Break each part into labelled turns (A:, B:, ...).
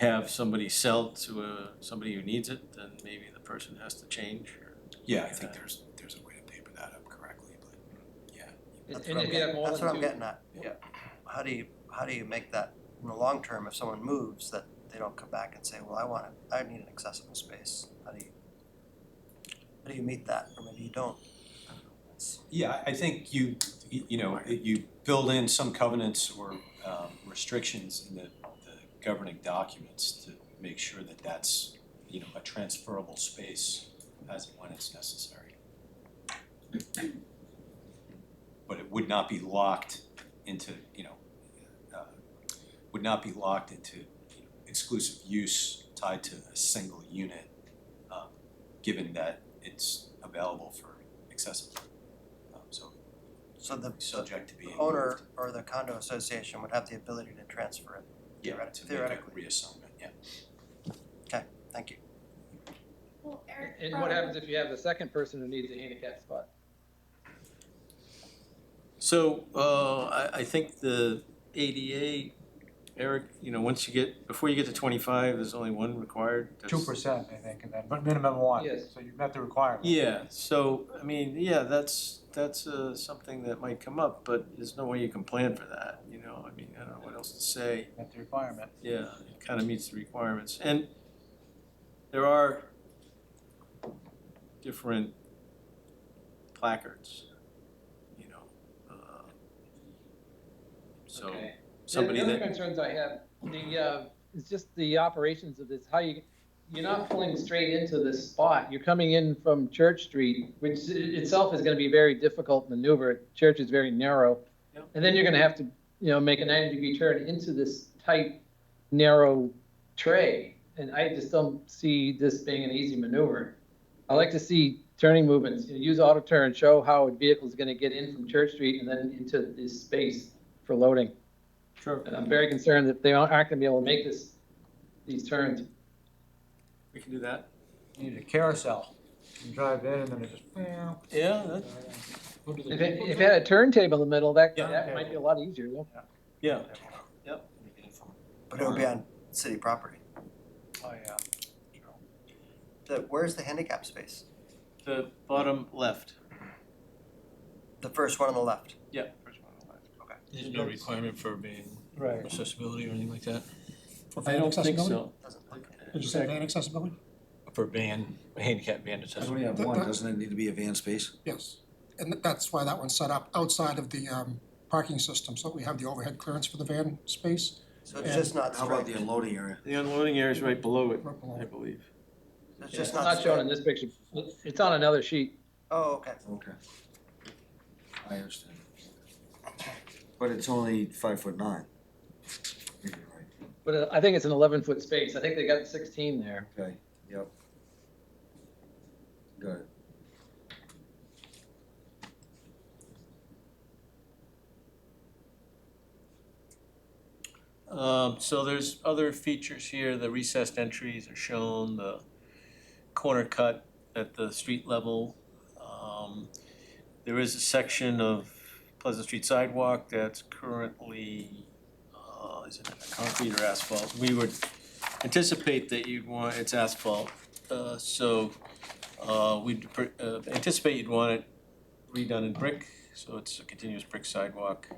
A: have somebody sell to a, somebody who needs it, then maybe the person has to change or.
B: Yeah, I think there's, there's a way to paper that up correctly, but yeah.
C: And
B: That's
C: and
B: what
C: if
B: I'm
C: you have more
D: That's what I'm
C: than
D: getting at.
B: Yeah.
D: How do you, how do you make that in the long term, if someone moves, that they don't come back and say, well, I want, it- I need an accessible space, how do you? How do you meet that, or maybe you don't? I don't know. It's-
B: Yeah, I- I think you, you you know, you build in some covenants or um, restrictions in the, the governing documents to make sure that that's, you know, a transferable space as and when it's necessary. But it would not be locked into, you know, uh, would not be locked into you know, exclusive use tied to a single unit, um, given that it's available for accessible um, so
D: So the,
B: it's subject to being
D: the
B: moved.
D: owner or the condo association would have the ability to transfer it,
B: Yeah,
D: theoretic-
B: To
D: theoretically.
B: make a reassignment, yeah.
D: thank you.
E: Well, Eric.
C: And what happens if you have the second person who needs a handicap spot?
A: So, uh, I, I think the ADA, Eric, you know, once you get, before you get to twenty-five, there's only one required.
F: two
A: That's-
F: percent, I think, and then, but minimum one,
C: Yes.
F: so you've met the requirement.
A: Yeah, so, I mean, yeah, that's, that's, uh, something that might come up, but there's no way you can plan for that, you know, I mean, I don't know what else to say.
F: Met the requirement.
A: Yeah, it kind of meets the requirements, and there are different placards, you know, uh, so
C: Okay.
A: somebody
C: The other
A: that,
C: concerns I have, the, uh, it's just the operations of this, how you, you're not pulling straight into this spot. You're coming in from Church Street, which i- itself is gonna be very difficult maneuver. Church is very narrow.
A: Yep.
C: And then you're gonna have to, you know, make a ninety degree turn into this tight, narrow tray. And I just don't see this being an easy maneuver. I like to see turning movements, you know, use auto turn, show how a vehicle's gonna get in from Church Street and then into this space for loading.
A: sure,
C: And I'm very concerned that they aren't going to be able to make this, these turns.
A: we can do that.
F: You need a carousel, you drive in and then it just, meow.
A: Yeah, that,
C: If it, if it had a turntable in the middle, that,
A: Yeah.
C: that might be a lot easier. yeah.
A: yeah,
D: But it would be on city property,
F: Oh, yeah.
D: the, where's the handicap space?
A: the bottom left,
D: The first one on the left,
A: yeah, first one on the left.
G: There's no requirement for being
F: Right.
G: accessibility or anything like that,
H: For
A: I
H: van
A: don't
H: accessibility?
A: think so.
D: doesn't look it.
H: Did you say van accessibility?
G: for van, handicap van
I: I
G: accessibility.
I: only have
H: That-
I: one,
H: that-
I: doesn't it need to be a van space?
H: Yes. And th- that's why that one's set up outside of the um, parking system, so that we have the overhead clearance for the van space.
D: So it's just not
I: How about
D: striped,
I: the unloading area?
A: The unloading area is right below it,
H: Right below
A: I
H: it.
A: believe.
D: it's
C: It's
D: just
C: not
D: not
C: shown in
D: striped,
C: this picture. It's on another sheet.
D: oh, okay,
I: Okay. I understand. But it's only five foot nine. You're right.
C: But uh, I think it's an 11-foot space. I think they got 16 there.
I: Okay, yep. Got it.
A: Um, so there's other features here, the recessed entries are shown, the corner cut at the street level. Um, there is a section of Pleasant Street sidewalk that's currently, uh, is it concrete or asphalt? We would anticipate that you'd want, it's asphalt, uh, so, uh, we'd pr- uh, anticipate you'd want it redone in brick, so it's a continuous brick sidewalk.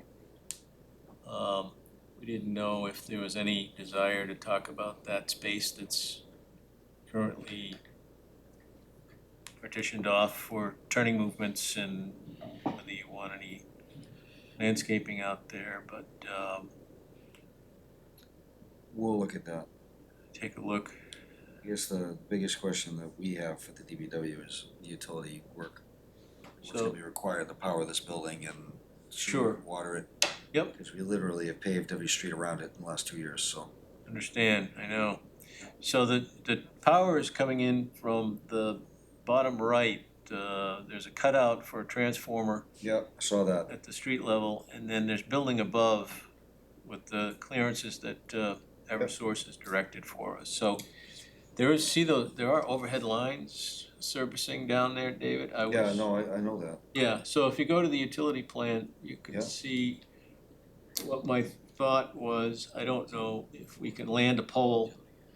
A: Um, we didn't know if there was any desire to talk about that space that's currently partitioned off for turning movements and whether you want any landscaping out there, but um
I: We'll look at that.
A: take a look.
I: I guess the biggest question that we have for the DBW is the utility work. What's
A: So-
I: gonna be required to power this building and
A: Sure.
I: sewer, water it?
A: Yep.
I: Cause we literally have paved every street around it in the last two years, so.
A: Understand, I know. So the, the power is coming in from the bottom right. Uh, there's a cutout for a transformer
I: Yep. Saw that.
A: at the street level, and then there's building above with the clearances that uh, Eversource has directed for us. So there is, see those, there are overhead lines servicing down there, David? I
I: Yeah,
A: was-
I: no, I, I know that.
A: Yeah, so if you go to the utility plan, you
I: Yeah.
A: can see what my thought was. I don't know if we can land a pole